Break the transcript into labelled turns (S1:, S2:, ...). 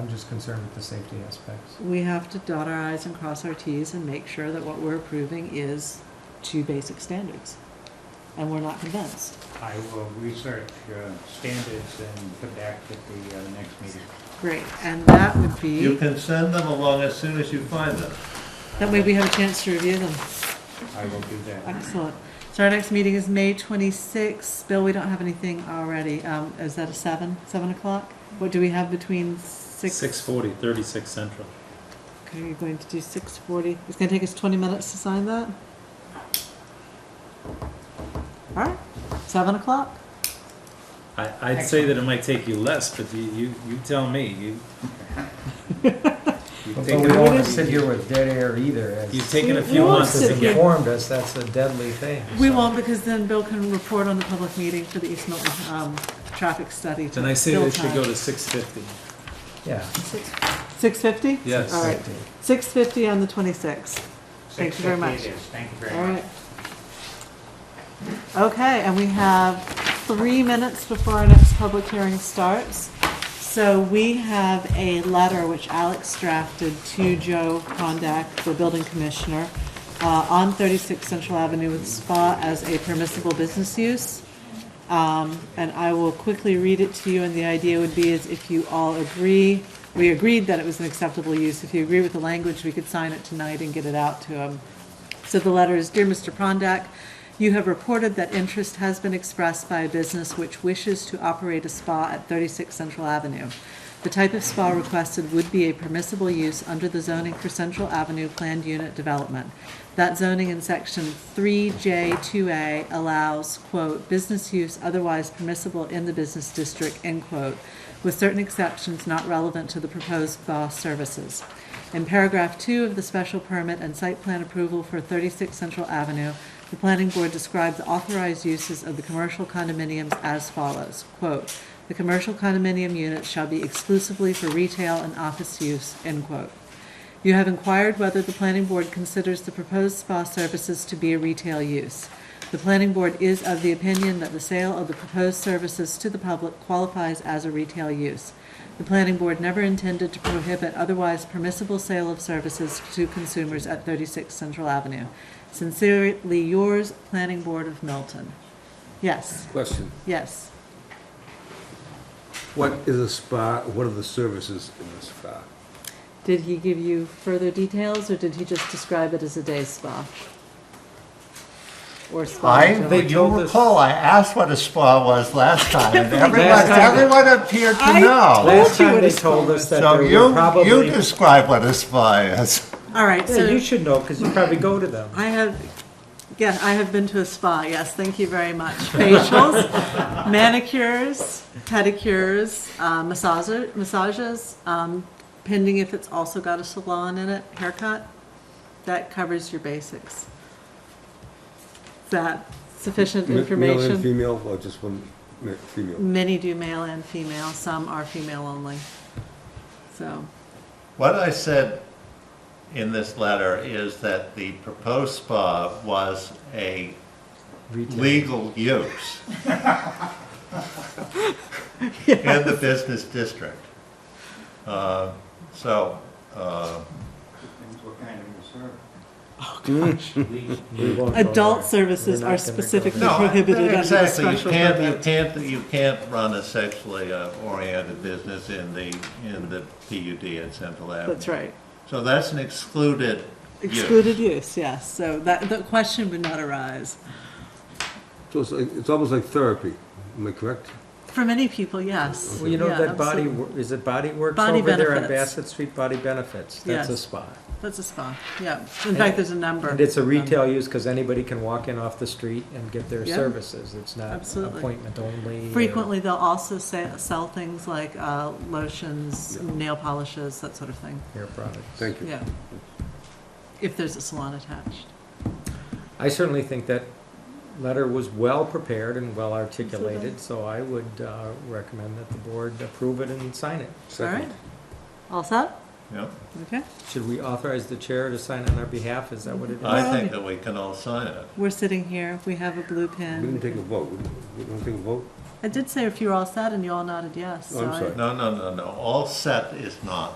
S1: I'm just concerned with the safety aspects.
S2: We have to dot our i's and cross our t's and make sure that what we're approving is to basic standards. And we're not convinced.
S3: I will research uh, standards and come back at the uh, next meeting.
S2: Great, and that would
S4: You
S2: be,
S4: can send them along as soon as you find them.
S2: that way we have a chance to review them.
S3: I will do that.
S2: Excellent. So our next meeting is May twenty-sixth. Bill, we don't have anything already. Um, is that a seven, seven o'clock? What do we have between six?
S5: Six forty, thirty-six central.
S2: Okay, you're going to do six forty. It's gonna take us twenty minutes to sign that? All right, seven o'clock?
S5: I, I'd say that it might take you less, but you, you, you tell me, you. You've
S1: But we
S5: taken,
S1: don't want
S2: What
S1: to
S2: is-
S1: sit here with dead air either,
S5: you've
S1: as
S5: taken a
S2: You
S5: few
S2: won't
S5: months
S2: sit
S5: to
S1: they
S2: here.
S5: get,
S1: informed us, that's a deadly thing.
S2: We
S1: so.
S2: won't, because then Bill can report on the public meeting for the East Milton, um, traffic study.
S5: then I say they should go to six fifty.
S1: Yeah.
S2: Six fifty?
S5: Yes.
S2: All right,
S1: safety.
S2: six fifty on the twenty-sixth. Thank you very much.
S3: 6:50 it is. Thank you
S2: All
S3: very much.
S2: right. Okay, and we have three minutes before our next public hearing starts. So we have a letter which Alex drafted to Joe Kondak, the building commissioner, uh, on 36 Central Avenue with spa as a permissible business use. Um, And I will quickly read it to you, and the idea would be is if you all agree, we agreed that it was an acceptable use. If you agree with the language, we could sign it tonight and get it out to him. So the letter is, Dear Mr. Prondak, you have reported that interest has been expressed by a business which wishes to operate a spa at 36 Central Avenue. The type of spa requested would be a permissible use under the zoning for Central Avenue Planned Unit Development. That zoning in section 3J2A allows, quote, "business use otherwise permissible in the business district," end quote, with certain exceptions not relevant to the proposed spa services. In paragraph two of the special permit and site plan approval for 36 Central Avenue, the planning board described the authorized uses of the commercial condominiums as follows, quote, "The commercial condominium units shall be exclusively for retail and office use," end quote. You have inquired whether the planning board considers the proposed spa services to be a retail use. The planning board is of the opinion that the sale of the proposed services to the public qualifies as a retail use. The planning board never intended to prohibit otherwise permissible sale of services to consumers at 36 Central Avenue. Sincerely yours, Planning Board of Milton. Yes,
S6: Question,
S2: yes.
S6: what is a spa, what are the services in a spa?
S2: Did he give you further details, or did he just describe it as a day spa? Or spa? in general?
S4: If you recall, I asked what a spa was last time, and
S1: Last
S4: everyone,
S1: time-
S4: everyone appeared to
S2: I-
S4: know.
S1: Last
S2: you
S1: time
S2: what
S1: they
S2: it's
S1: told
S2: called.
S1: us that
S4: So
S1: there were
S4: you, you
S1: probably,
S4: describe what a spa is.
S2: All right,
S1: Yeah, you
S2: so
S1: should know, because you probably go to them.
S2: I have, yeah, I have been to a spa, yes, thank you very much. Facials, manicures, pedicures, uh, massager- massages, um, pending if it's also got a salon in it, haircut. That covers your basics. Is that sufficient
S6: Ma- Male
S2: information?
S6: and female, or just one, ma- female?
S2: Many do male and female, some are female only. So,
S4: What I said in this letter is that the proposed spa was a legal use in the business district. Uh, So, uh,
S3: Depends what kind of reserve.
S1: We won't go
S2: adult
S1: there.
S2: services
S1: We're not gonna go
S2: are specifically
S1: there.
S4: no,
S2: prohibited under the
S4: exactly, you
S2: special
S4: can't, you
S2: permit.
S4: can't, you can't run a sexually uh, oriented business in the, in the PUD at Central Avenue.
S2: That's right.
S4: So that's an excluded use.
S2: Excluded use, yes, so that, the question would not arise.
S6: So it's like, it's almost like therapy, am I correct?
S2: For many people, yes.
S1: Well, you know
S2: Yeah,
S1: that Body,
S2: absolutely.
S1: Wor- is it Body Works
S2: Body
S1: over there on
S2: Benefits.
S1: Bassett Street, Body Benefits? That's a
S2: Yes.
S1: spa.
S2: That's a spa, yeah. In fact, there's a number.
S1: And it's a
S2: of them.
S1: retail use, because anybody can walk in off the street and get their
S2: Um, Yeah.
S1: services. It's not
S2: Absolutely.
S1: appointment only. or-
S2: Frequently, they'll also sa- sell things like uh, lotions, nail polishes, that sort of thing,
S1: Hair products.
S6: Thank you.
S2: yeah. If there's a salon attached.
S1: I certainly think that letter was well-prepared and well-articulated, so I would uh, recommend that the board approve it and sign it.
S2: All
S6: Second.
S2: right? All set?
S4: Yeah.
S2: Okay.
S1: Should we authorize the chair to sign on our behalf? Is that what it is?
S4: I think that we can all sign it.
S2: We're sitting here, we have a blue
S6: We
S2: pen.
S6: didn't take a vote, we we don't take a vote?
S2: I did say if you were all set and you all nodded yes, so
S6: I'm
S2: I-
S6: sorry.
S4: No, no, no, no, all set is not.